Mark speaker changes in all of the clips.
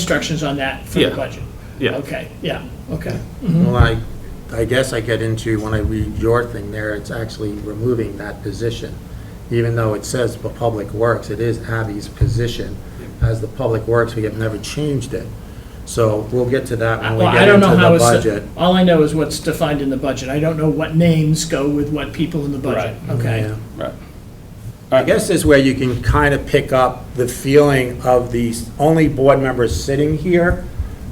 Speaker 1: instructions on that for the
Speaker 2: Yeah.
Speaker 1: budget?
Speaker 2: Yeah.
Speaker 1: Okay, yeah, okay.
Speaker 3: Well, I, I guess I get into, when I read your thing there, it's actually removing that position. Even though it says for Public Works, it is Abby's position as the Public Works, we have never changed it. So we'll get to that when we
Speaker 1: Well, I
Speaker 3: get
Speaker 1: don't
Speaker 3: into
Speaker 1: know how
Speaker 3: the
Speaker 1: it's-
Speaker 3: budget.
Speaker 1: All I know is what's defined in the budget. I don't know what names go with what people in the budget, okay?
Speaker 3: Yeah.
Speaker 2: Right.
Speaker 3: I guess this way you can kind of pick up the feeling of these only board members sitting here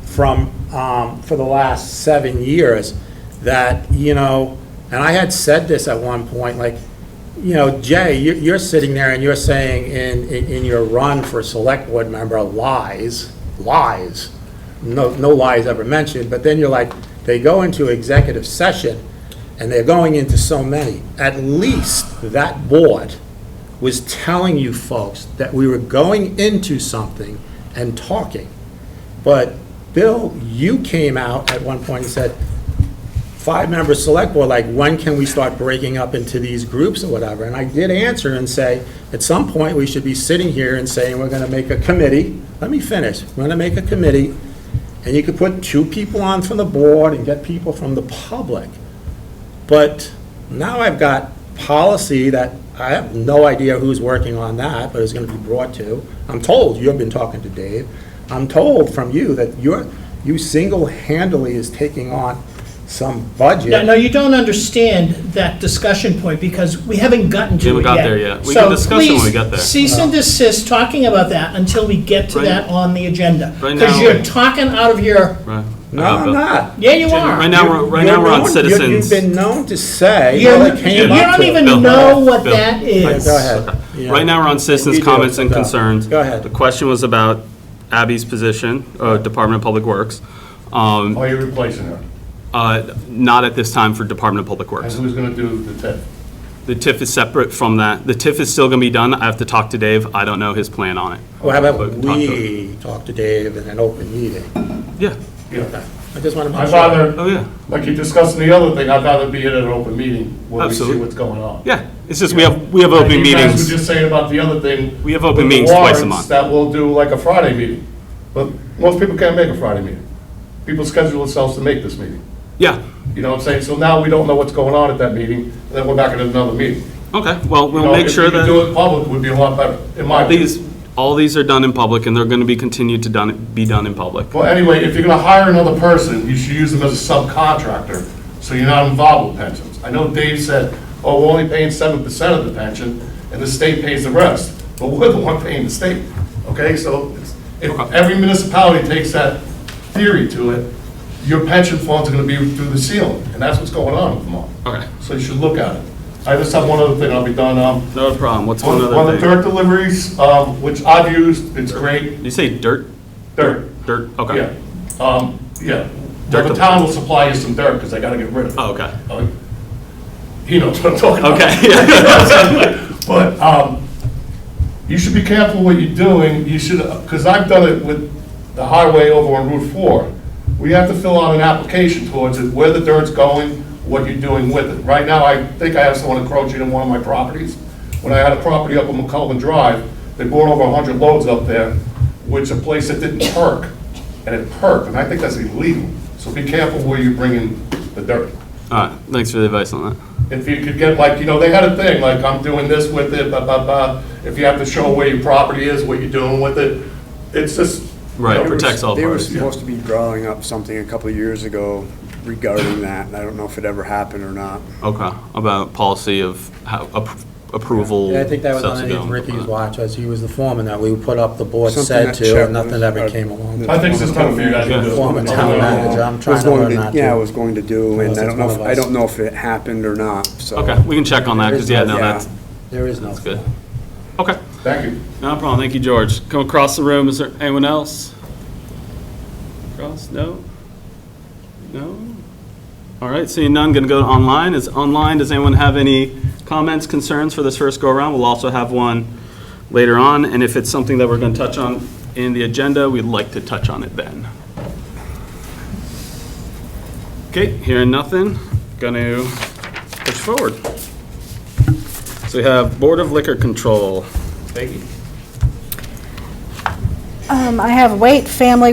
Speaker 3: from, um, for the last seven years, that, you know, and I had said this at one point, like, you know, Jay, you- you're sitting there and you're saying in, in- in your run for select board member, lies, lies. No, no lies ever mentioned, but then you're like, they go into executive session, and they're going into so many. At least that board was telling you folks that we were going into something and talking. But Bill, you came out at one point and said, five-member select board, like, when can we start breaking up into these groups or whatever? And I did answer and say, at some point, we should be sitting here and saying, we're gonna make a committee. Let me finish. We're gonna make a committee, and you could put two people on from the board and get people from the public. But now I've got policy that, I have no idea who's working on that, but it's gonna be brought to. I'm told, you've been talking to Dave, I'm told from you that you're, you single-handedly is taking on some budget.
Speaker 1: No, no, you don't understand that discussion point because we haven't gotten to it
Speaker 2: We
Speaker 1: yet.
Speaker 2: haven't got there yet. We can discuss it when we get there.
Speaker 1: So please cease and desist talking about that until we get to
Speaker 2: Right.
Speaker 1: that on the agenda.
Speaker 2: Right
Speaker 1: Because
Speaker 2: now-
Speaker 1: you're talking out of your,
Speaker 2: Right.
Speaker 3: No, I'm not.
Speaker 1: yeah, you are.
Speaker 2: Right Uh, now, we're, right now, we're on
Speaker 3: You're known- you're-
Speaker 2: citizens.
Speaker 3: You've been known to say,
Speaker 1: You're-
Speaker 3: well, it
Speaker 1: You
Speaker 3: came
Speaker 2: Yeah.
Speaker 3: up
Speaker 1: don't
Speaker 3: to.
Speaker 1: even
Speaker 2: Bill,
Speaker 1: know what
Speaker 2: Bill.
Speaker 1: that
Speaker 3: All
Speaker 1: is.
Speaker 3: right, Go ahead. Yeah.
Speaker 2: Right now, we're on
Speaker 3: You
Speaker 2: citizens'
Speaker 3: do.
Speaker 2: comments and
Speaker 3: Go.
Speaker 2: concerns.
Speaker 3: Go ahead.
Speaker 2: The question was about Abby's position, uh, Department of Public Works. Um,
Speaker 4: Are you replacing her?
Speaker 2: uh, Not at this time for Department of Public
Speaker 4: And
Speaker 2: Works.
Speaker 4: who's gonna do the TIF?
Speaker 2: The TIF is separate from that. The TIF is still going to be done. I have to talk to Dave. I don't know his plan on it.
Speaker 3: Well, how
Speaker 2: But
Speaker 3: about
Speaker 2: talk to him.
Speaker 3: we talk to Dave in an open meeting?
Speaker 2: Yeah,
Speaker 4: Yeah.
Speaker 3: I just want to make
Speaker 4: I'd
Speaker 3: sure.
Speaker 2: oh,
Speaker 4: rather,
Speaker 2: yeah.
Speaker 4: like you discussed in the other thing, I'd rather be in an open meeting where we see
Speaker 2: Absolutely.
Speaker 4: what's going on.
Speaker 2: Yeah, it's just, we have, we have open
Speaker 4: And you guys were
Speaker 2: meetings.
Speaker 4: just saying about the other thing.
Speaker 2: We have open
Speaker 4: with the
Speaker 2: meetings twice a month.
Speaker 4: warrants That we'll do like a Friday meeting. But most people can't make a Friday meeting. People schedule themselves to make this meeting.
Speaker 2: Yeah,
Speaker 4: You know what I'm saying? So now we don't know what's going on at that meeting, and then we're back at another meeting.
Speaker 2: okay. Well,
Speaker 4: You
Speaker 2: we'll
Speaker 4: know,
Speaker 2: make sure that.
Speaker 4: If you could do it in public, it would be a lot better, in my
Speaker 2: All
Speaker 4: opinion.
Speaker 2: these, all these are done in public, and they're going to be continued to done, be done in public.
Speaker 4: Well, anyway, if you're gonna hire another person, you should use them as a subcontractor, so you're not involved with pensions. I know Dave said, oh, we're only paying seven percent of the pension, and the state pays the rest, but we're the one paying the state, okay? So it's- if every municipality takes that theory to it, your pension funds are gonna be through the ceiling, and that's what's going on in Vermont.
Speaker 2: Okay.
Speaker 4: So you should look at it. I just have one other thing, I'll be done. Um,
Speaker 2: No problem. What's one
Speaker 4: On on
Speaker 2: other
Speaker 4: the
Speaker 2: thing?
Speaker 4: dirt deliveries, um, which I've used, it's great,
Speaker 2: You say dirt?
Speaker 4: dirt.
Speaker 2: Dirt,
Speaker 4: Yeah,
Speaker 2: okay.
Speaker 4: um, yeah.
Speaker 2: Dirt
Speaker 4: Well,
Speaker 2: to-
Speaker 4: the town will supply you some dirt, because they gotta get rid of it.
Speaker 2: Oh, okay.
Speaker 4: Uh, He knows what I'm talking about.
Speaker 2: Okay, yeah.
Speaker 4: But, um, you should be careful what you're doing, you should, because I've done it with the highway over on Route Four. We have to fill out an application towards it, where the dirt's going, what you're doing with it. Right now, I think I have someone encroaching on one of my properties. When I had a property up on McCullough Drive, they brought over hundred loads up there, which a place that didn't perk, and it perked, and I think that's illegal. So be careful where you're bringing the dirt
Speaker 2: All right, thanks for the advice on that.
Speaker 4: if you could get, like, you know, they had a thing, like, I'm doing this with it, blah, blah, blah. If you have to show where your property is, what you're doing with it, it's just.
Speaker 2: Right, it protects all
Speaker 5: They were
Speaker 2: parties.
Speaker 5: supposed to be drawing up something a couple of years ago regarding that, and I don't know if it ever happened or not.
Speaker 2: Okay, about policy of how, ap- approval.
Speaker 3: Yeah, I think that was
Speaker 2: steps to go
Speaker 3: underneath
Speaker 2: and
Speaker 3: Ricky's
Speaker 2: whatnot.
Speaker 3: watch, as he was the foreman, that we put up the board
Speaker 5: Something
Speaker 3: said
Speaker 5: that
Speaker 3: to,
Speaker 5: Chet
Speaker 3: and nothing
Speaker 5: was-
Speaker 3: ever
Speaker 5: uh,
Speaker 3: came along.
Speaker 4: I think this is time for you guys to do it.
Speaker 3: Former town manager, I'm trying
Speaker 5: Was
Speaker 3: to
Speaker 5: going
Speaker 3: learn not to.
Speaker 5: Yeah, I was going to do, and
Speaker 3: Unless
Speaker 5: I
Speaker 3: it's
Speaker 5: don't know,
Speaker 3: one
Speaker 5: if-
Speaker 3: of
Speaker 5: I
Speaker 3: us.
Speaker 5: don't know if it happened or not, so.
Speaker 2: Okay, we can check on that, because, yeah, no,
Speaker 3: Yeah.
Speaker 2: that's
Speaker 3: There is no. That's
Speaker 2: good. Okay,
Speaker 4: Thank you.
Speaker 2: no problem. Thank you, George. Come across the room. Is there anyone else? Across, no? No? All right, seeing none, going to go to online. Is online, does anyone have any comments, concerns for this first go-around? We'll also have one later on, and if it's something that we're going to touch on in the agenda, we'd like to touch on it then. Okay, hearing nothing, going to push forward. So we have Board of Liquor Control. Thank you.
Speaker 6: Um, I have Wait Family